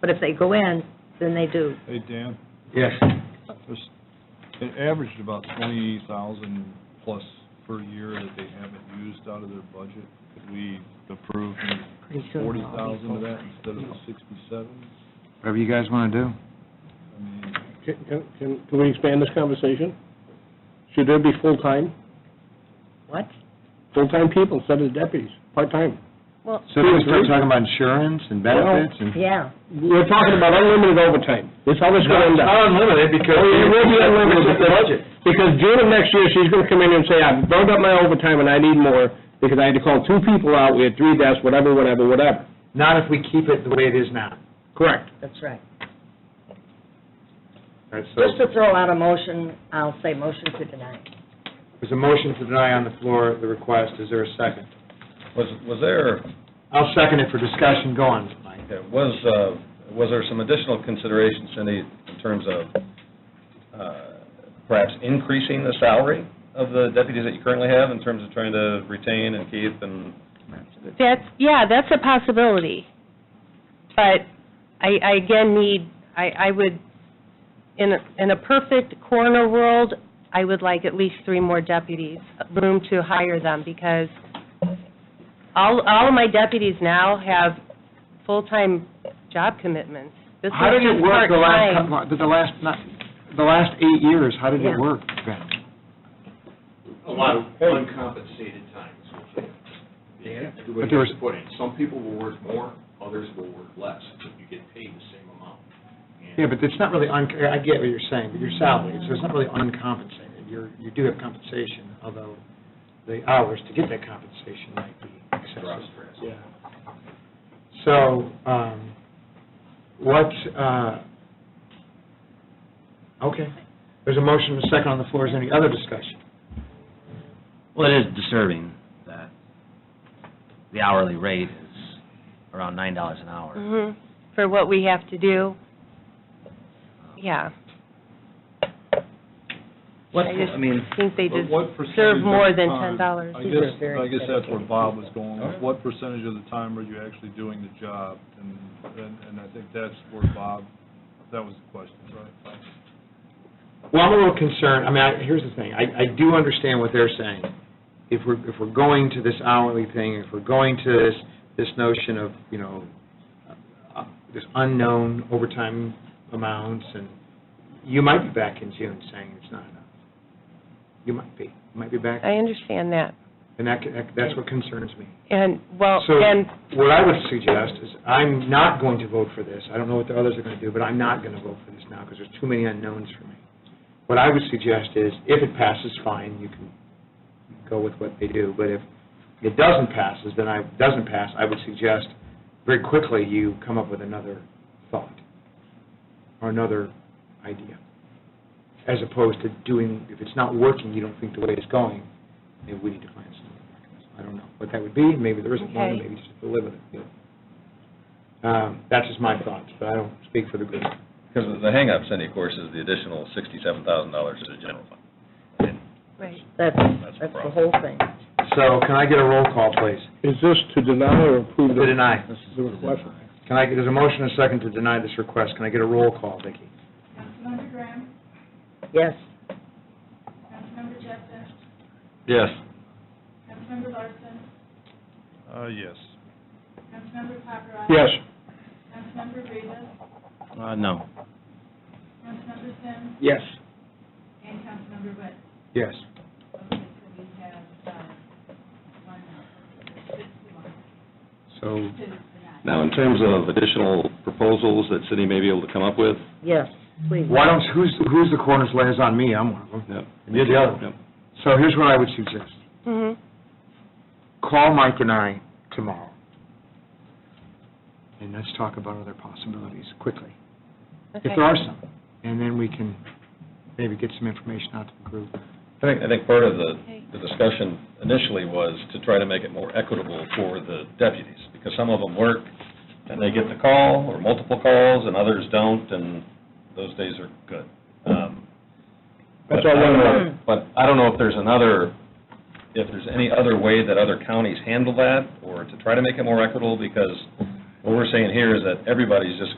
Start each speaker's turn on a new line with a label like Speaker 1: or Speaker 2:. Speaker 1: But if they go in, then they do.
Speaker 2: Hey, Dan,
Speaker 3: Yes.
Speaker 2: there's, it averaged about twenty thousand plus per year that they haven't used out of their budget. Could we approve
Speaker 1: Pretty soon
Speaker 2: forty
Speaker 1: they'll all be
Speaker 2: thousand of that
Speaker 1: full-time.
Speaker 2: instead of the sixty-seven?
Speaker 3: Whatever you guys want to do.
Speaker 2: I mean,
Speaker 4: Can, can- can, can we expand this conversation? Should there be full-time,
Speaker 1: What?
Speaker 4: full-time people instead of deputies, part-time?
Speaker 3: So if we start talking about insurance and benefits and...
Speaker 1: Yeah.
Speaker 4: We're talking about unlimited overtime. That's how this is gonna end up.
Speaker 3: unlimited because...
Speaker 4: Oh, it will be unlimited.
Speaker 3: With the budget.
Speaker 4: Because June of next year, she's gonna come in and say, I've burned up my overtime and I need more, because I had to call two people out, we had three deaths, whatever, whatever, whatever.
Speaker 3: Not if we keep it the way it is now.
Speaker 4: Correct.
Speaker 1: That's right.
Speaker 3: All right, so
Speaker 1: Just to throw out a motion, I'll say motion to deny.
Speaker 3: there's a motion to deny on the floor the request. Is there a second?
Speaker 5: Was, was there,
Speaker 3: I'll second it for discussion. Go on, Mike.
Speaker 5: was, uh, was there some additional consideration, Cindy, in terms of uh, perhaps increasing the salary of the deputies that you currently have in terms of trying to retain and keep and?
Speaker 6: That's, yeah, that's a possibility. But I, I again need, I, I would, in a, in a perfect corner world, I would like at least three more deputies, room to hire them, because all, all of my deputies now have full-time job commitments. This is
Speaker 3: How did it
Speaker 6: just
Speaker 3: work the last,
Speaker 6: part-time.
Speaker 3: couple- the last, not, the last eight years? How did
Speaker 1: Yeah.
Speaker 3: it work, Ben?
Speaker 7: a lot of uncompensated time. is what you- yeah,
Speaker 3: But there
Speaker 7: Everybody
Speaker 3: was-
Speaker 7: has to put in. Some people will work more, others will work less, but you get paid the same amount. And-
Speaker 3: Yeah, but it's not really, un. I get what you're saying, but your salary, so it's not really uncompensated. You're, you do have compensation, although the hours to get that compensation might be excessive. Yeah. So, um, what, uh, okay, there's a motion and a second on the floor. Is there any other discussion?
Speaker 8: Well, it is disturbing that the hourly rate is around nine dollars an hour.
Speaker 6: Mhm. For what we have to do. Yeah.
Speaker 8: What,
Speaker 6: I just
Speaker 8: I mean,
Speaker 6: think they
Speaker 2: But
Speaker 6: just
Speaker 2: what percentage
Speaker 6: serve more
Speaker 2: of the
Speaker 6: than
Speaker 2: time-
Speaker 6: $10.
Speaker 2: I
Speaker 1: These
Speaker 2: guess,
Speaker 1: are very
Speaker 2: I guess that's where
Speaker 1: dedicated
Speaker 2: Bob
Speaker 1: people.
Speaker 2: was going, with. what percentage of the time are you actually doing the job? And, and and I think that's where Bob, that was the question, right?
Speaker 3: Well, I'm a little concerned, I mean, I- here's the thing, I, I do understand what they're saying. If we're, if we're going to this hourly thing, if we're going to this, this notion of, you know, uh, this unknown overtime amounts, and you might be back in June saying it's not enough. You might be, you might be back,
Speaker 6: I understand that.
Speaker 3: and that, that- that's what concerns me.
Speaker 6: And, well,
Speaker 3: So
Speaker 6: and
Speaker 3: what I would suggest is, I'm not going to vote for this. I don't know what the others are going to do, but I'm not going to vote for this now because there's too many unknowns for me. What I would suggest is, if it passes, fine, you can go with what they do. But if it doesn't passes, then I, doesn't pass, I would suggest very quickly you come up with another thought or another idea, as opposed to doing, if it's not working, you don't think the way it's going, maybe we need to find some other mechanism. I don't know what that would be, maybe there isn't one, and
Speaker 6: Okay.
Speaker 3: maybe you just have to live with it. But, um, That's just my thoughts, but I don't speak for the group.
Speaker 5: Because the hang-up, Cindy, of course, is the additional sixty-seven thousand dollars to the general fund. And
Speaker 6: Right.
Speaker 1: That's,
Speaker 5: That's a
Speaker 1: that's the
Speaker 5: problem.
Speaker 1: whole thing.
Speaker 3: So can I get a roll call, please?
Speaker 4: Is this to deny or approve?
Speaker 3: To deny.
Speaker 8: this is.
Speaker 4: The request.
Speaker 3: Can I, there's a motion and a second to deny this request. Can I get a roll call, Vicki?
Speaker 9: Councilmember Graham,
Speaker 1: Yes.
Speaker 9: Councilmember Jessen,
Speaker 5: Yes.
Speaker 9: Councilmember Larson,
Speaker 2: Uh, yes.
Speaker 9: Councilmember Paparad.
Speaker 4: Yes.
Speaker 9: Councilmember Rivas,
Speaker 8: Uh, no.
Speaker 9: Councilmember Sims,
Speaker 3: Yes.
Speaker 9: and Councilmember Wood.
Speaker 3: Yes.
Speaker 9: Okay, so we have, uh, one,
Speaker 3: So
Speaker 9: two, tonight.
Speaker 5: Now, in terms of additional proposals that Cindy may be able to come up with?
Speaker 1: Yes, please.
Speaker 3: Why don't, who's, who's the coroner's liaison? Me, I'm one of them.
Speaker 5: Yep.
Speaker 3: And you're the other one. So here's what I would suggest.
Speaker 6: Mhm.
Speaker 3: Call Mike and I tomorrow. And let's talk about other possibilities quickly, if
Speaker 6: Okay.
Speaker 3: there are some. And then we can maybe get some information out to the group.
Speaker 5: I think, I think part of the,
Speaker 6: Okay.
Speaker 5: the discussion initially was to try to make it more equitable for the deputies, because some of them work, and they get the call, or multiple calls, and others don't, and those days are good. Um,
Speaker 4: That's
Speaker 5: but
Speaker 4: all
Speaker 5: I don't
Speaker 4: one
Speaker 5: know- But I don't know if there's another, if there's any other way that other counties handle that, or to try to make it more equitable, because what we're saying here is that everybody's just